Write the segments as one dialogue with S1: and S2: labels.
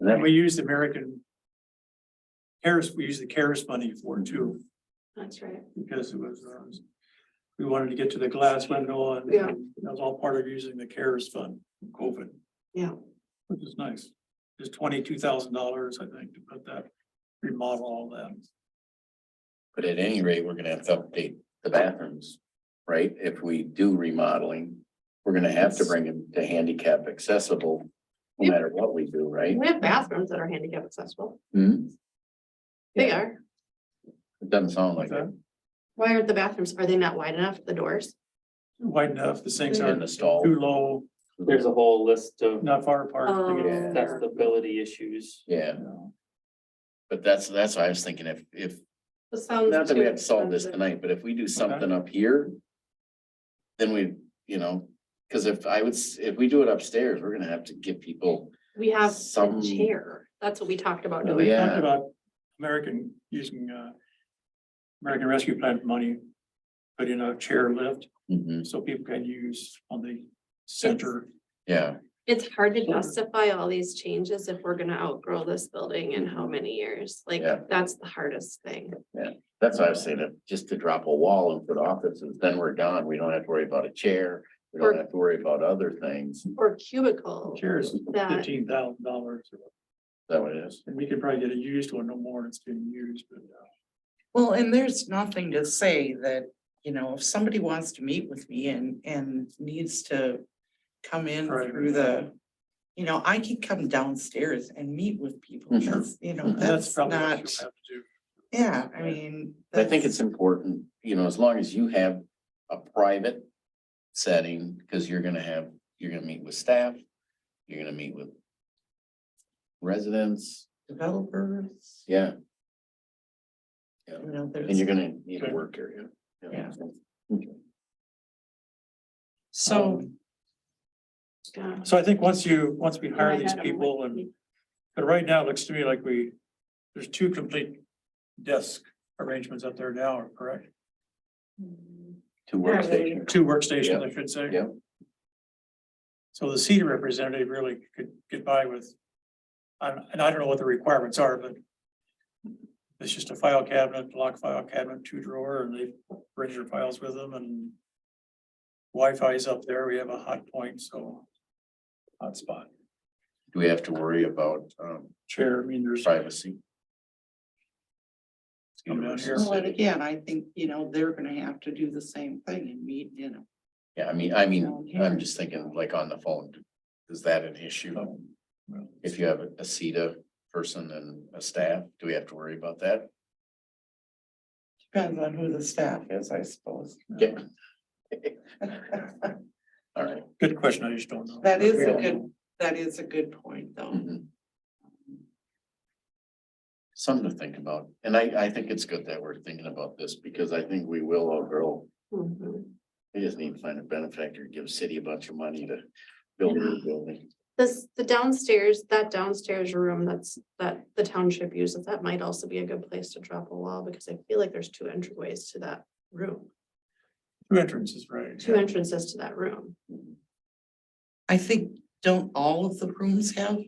S1: And then we used American. CARES, we used the CARES money for it too,
S2: That's right.
S1: because it was, um, we wanted to get to the glass window and
S2: Yeah.
S1: that was all part of using the CARES fund, from COVID.
S2: Yeah.
S1: Which is nice. It's twenty-two thousand dollars, I think, to put that, remodel all that.
S3: But at any rate, we're gonna have to update the bathrooms, right? If we do remodeling, we're gonna have to bring them to handicap accessible. No matter what we do, right?
S2: We have bathrooms that are handicap accessible.
S3: Hmm?
S2: They are.
S3: It doesn't sound like
S1: Like
S3: it.
S1: that,
S2: Why aren't the bathrooms, are they not wide enough, the doors?
S1: wide enough, the sinks
S3: In the
S1: aren't
S3: stall.
S1: too low,
S4: There's a whole list of
S1: not far apart.
S2: Um,
S1: to get-
S3: Yeah.
S4: accessibility issues.
S3: Yeah, but that's, that's what I was thinking. If, if,
S2: This sounds
S3: not that we
S2: too
S3: have to solve this
S2: expensive.
S3: tonight, but if we do something up here. Then we, you know, cause if I would, s- if we do it upstairs, we're gonna have to give people
S2: We have
S3: some.
S2: a chair. That's what we talked about
S3: Oh,
S1: We
S2: doing.
S1: talked
S3: Yeah.
S1: about American, using, uh, American Rescue Plan money, put in a chair lift,
S3: Mhm,
S1: so people can use on the center.
S3: yeah,
S2: It's hard to
S1: Sure.
S2: justify all these changes if we're gonna outgrow this building in how many years? Like,
S3: Yeah.
S2: that's the hardest thing.
S3: that's what I was saying, if- just to drop a wall and put offices, then we're done. We don't have to worry about a chair. We
S2: Or-
S3: don't have to worry about other things. Is
S2: Or cubicle
S1: Chairs,
S2: that,
S1: fifteen thousand dollars,
S3: that what it is?
S1: and we could probably get a used one, no more, than it's being used, but. uh,
S5: Well, and there's nothing to say that, you know, if somebody wants to meet with me and, and needs to come in
S1: Right.
S5: through the, you know, I can come downstairs and meet with people.
S3: Mhm.
S5: That's, you know,
S3: Mhm.
S1: That's
S5: that's
S1: probably what
S5: not,
S1: you'll have to do.
S5: yeah, I mean.
S3: I think
S5: that's-
S3: it's important, you know, as long as you have a private setting, because you're gonna have, you're gonna meet with staff, you're gonna meet with residents,
S5: Developers,
S3: yeah,
S5: you know,
S3: and you're
S5: there's,
S3: gonna need a work area.
S5: Yeah.
S3: Okay.
S5: so,
S1: Um,
S2: yeah.
S1: So I think once you, once we
S2: I
S1: hire these
S2: had 'em, like,
S1: people and, but right now it looks to me like we, there's two complete desk arrangements up there now, correct?
S2: Hmm.
S3: Two workstations,
S1: Two workstations,
S3: Yeah.
S1: I should say.
S3: yeah,
S1: So the city representative really could get by with, I- and I don't know what the requirements are, but it's just a file cabinet, lock file cabinet, two drawer, and they bring your files with them and Wi-Fi is up there. We have a hot point, so hotspot.
S3: do we have to worry about, um,
S1: Chair, I mean, there's,
S3: privacy?
S1: Come down here.
S5: well, and again, I think, you know, they're gonna have to do the same thing and meet, you know.
S3: Yeah, I mean, I mean,
S5: Down
S3: I'm
S5: here.
S3: just thinking like on the phone, is that an issue? If you have a CETA person and a staff, do we have to worry about that?
S5: Depends on who the staff is, I suppose.
S3: Yeah. All right.
S1: good question. I just don't know.
S5: That is a
S3: Yeah.
S5: good, that is a good point, though.
S3: Mhm. Something to think about, and I, I think it's good that we're thinking about this, because I think we will outgrow,
S2: Mhm.
S3: we just need to find a benefactor, give city a bunch of money to build a new building.
S2: This, the downstairs, that downstairs room that's, that the township uses, that might also be a good place to drop a wall, because I feel like there's two entryways to that room,
S1: Two entrances, right?
S2: two entrances to that room.
S5: I think, don't all of the rooms have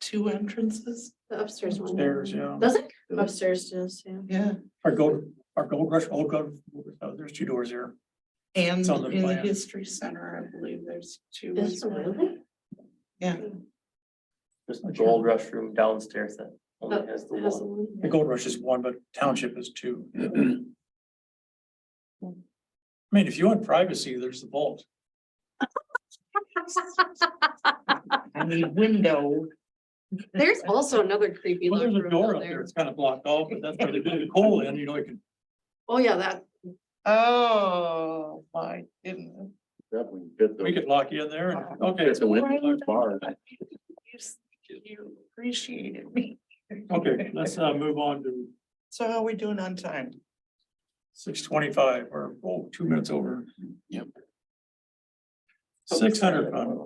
S5: two entrances?
S2: The upstairs one.
S1: Upstairs, yeah.
S2: Does it? Upstairs does, yeah.
S5: Yeah.
S1: Our gold, our gold rush, old gold, oh, there's two doors here.
S5: And
S1: It's on the
S5: in the
S1: plan.
S5: history center, I believe there's two.
S2: Is
S5: as
S2: it
S5: well.
S2: really?
S5: Yeah.
S4: There's the gold rush room downstairs that only has the
S2: Oh, It has
S4: one.
S2: one.
S1: The gold rush is one, but township is two. I mean, if you want privacy, there's the vault.
S5: I mean, window.
S2: There's also another creepy
S1: Well,
S2: looking
S1: there's a door
S2: room
S1: up
S2: down
S1: there.
S2: there.
S1: It's kind of blocked off, but that's where they do the coal in, you know, you can,
S2: Oh, yeah, that,
S5: Oh, my goodness.
S3: Definitely fit the-
S1: we could lock you in there. and- Okay,
S3: fit the window bar.
S5: You s- You appreciated me.
S1: okay, let's uh move on to
S5: So how are we doing on time?
S1: six twenty-five or, oh, two minutes over.
S3: Yep.
S1: Six hundred fund,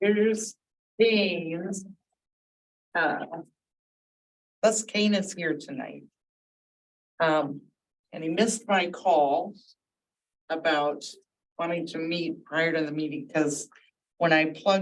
S5: Here's Dane's. Uh, Thus Kane is here tonight. Um, and he missed my call about wanting to meet prior to the meeting, because when I plugged